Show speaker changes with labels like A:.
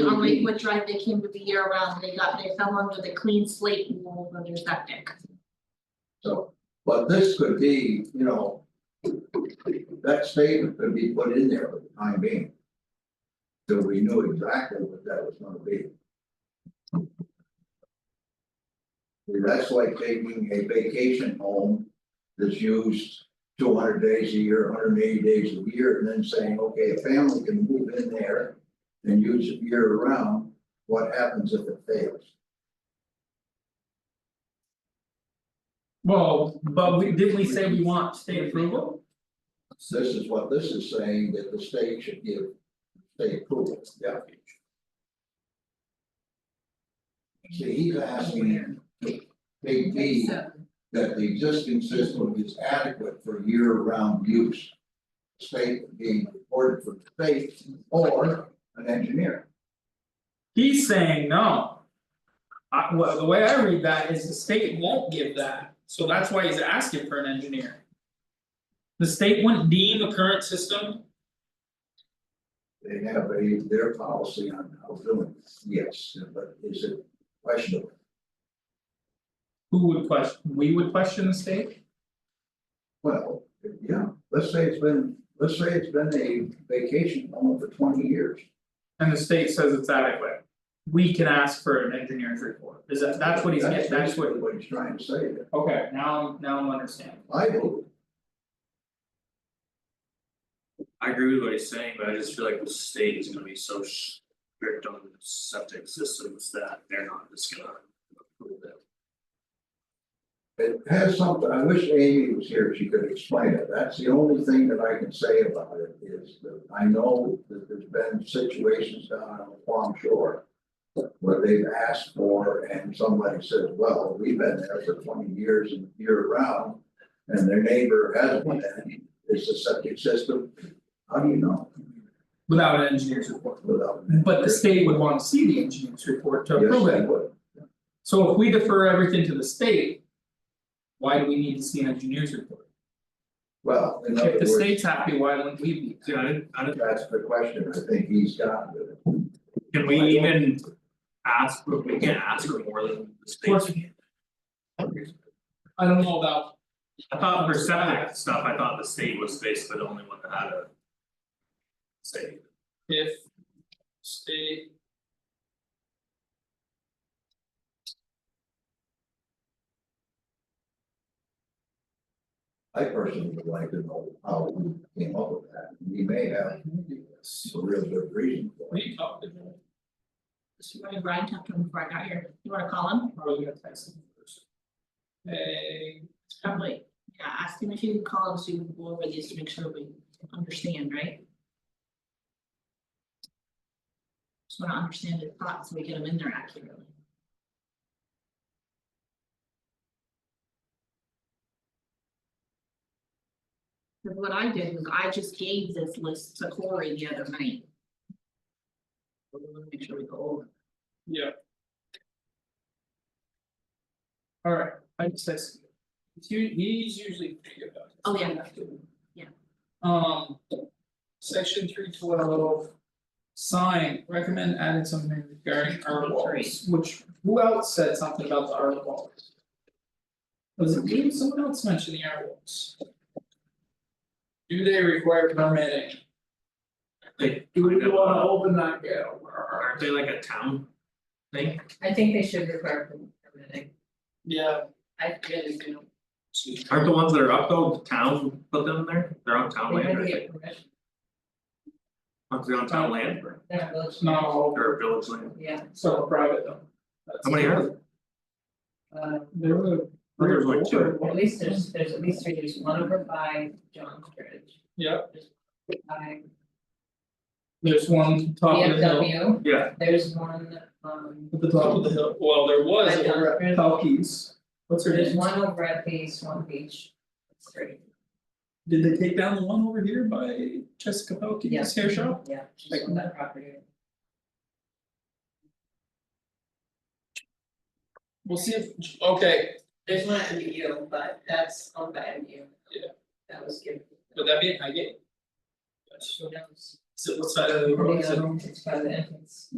A: on Lakewood Drive, they came to the year round, they got, they fell under the clean slate rule for their septic.
B: So, but this could be, you know. That statement could be put in there for the time being. So we knew exactly what that was gonna be. That's like taking a vacation home that's used two hundred days a year, hundred and eighty days a year, and then saying, okay, a family can move in there. And use it year round, what happens if it fails?
C: Well, but we, did we say we want state approval?
B: This is what this is saying, that the state should give state approval, yeah. See, he's asking big B that the existing system is adequate for year-round use. State being reported for the state or an engineer.
C: He's saying no. I, well, the way I read that is the state won't give that, so that's why he's asking for an engineer. The state wouldn't deem a current system,
B: They have a, their policy on how to do it, yes, but is it questionable?
C: who would question, we would question the state?
B: Well, yeah, let's say it's been, let's say it's been a vacation home for twenty years.
C: And the state says it's adequate. We can ask for an engineer's report, is that, that's what he's getting, that's what,
B: basically What he's trying to say, there.
C: okay, now I'm, now I'm understanding.
B: I believe,
D: I agree with what he's saying, but I just feel like the state is gonna be so strict on septic systems that they're not just gonna. approve it.
B: it has something, I wish Amy was here, she could explain it, that's the only thing that I can say about it is that I know that there's been situations down on the Palm Shore. Where they've asked for and somebody says, well, we've been there for twenty years and year round. And their neighbor has one, and it's a septic system, how do you know
C: Without an engineer's report,
B: without? an
C: but the
B: engineer?
C: state would wanna see the engineer's report to
B: Yes,
C: approve it.
B: they would.
C: So if we defer everything to the state. Why do we need to see an engineer's report?
B: Well, in other
C: If the
B: words.
C: state's happy, why wouldn't we be?
D: See, I didn't, I didn't,
B: That's the question I think he's got with it.
D: can we even ask, we can't ask for more than the state.
C: course I don't know about,
D: I thought for septic stuff, I thought the state was basically the only one that had a. Say,
C: if state.
B: I personally would like to know how we came up with that. We may have a real good reason for it.
C: We talked about, it.
A: So you wanna Brian talked to him before I got here, you wanna call him,
C: I'm probably gonna text him first. Hey,
A: probably, yeah, ask him if you can call him, so we can go over these to make sure we understand, right? Just wanna understand his thoughts, so we get them in there accurately. Cause what I did was I just gave this list to Corey the other night. So we wanna Make sure we go over.
C: yeah. Alright, I just text. him. He's u- he's usually pretty good about it.
A: Oh, yeah. Yeah.
C: Um, section three twelve. Sign, recommend adding something regarding our walls, which, who else said something about the art walls? Was it me, someone else mentioned the art walls? Do they require permitting?
D: they,
C: Do we wanna open that gap?
D: aren't they like a town thing?
E: I think they should require permitting,
C: Yeah,
E: I really do,
D: Aren't the ones that are up though, the town put them there, they're on town
E: they
D: land,
E: had to
D: right?
E: get permission,
D: Aren't they on town land
E: they're not
C: it's
E: village,
C: not all,
D: or village land?
E: yeah,
C: so private though.
D: How many are there?
E: uh,
C: There were.
D: There's like two.
E: at least there's, there's at least three, there's one over by John Bridge,
C: Yeah,
E: by
C: there's one top of the hill,
E: BMW,
D: Yeah,
E: there's one, um.
C: at the top of the hill, well, there was
E: By
C: over at
E: Dunkirk.
C: Pelkey's. What's her
E: There's
C: name?
E: one over at the Swan Beach, that's three,
C: Did they take down the one over here by Jessica Pelkey's hair shop?
E: yeah, just on that property.
C: We'll see if, okay,
E: There's one at the U, but that's on the MU.
C: Yeah.
E: That was given.
C: would that be an I gate?
E: Who knows?
C: Is it what side of the road is it?
E: It's by the entrance.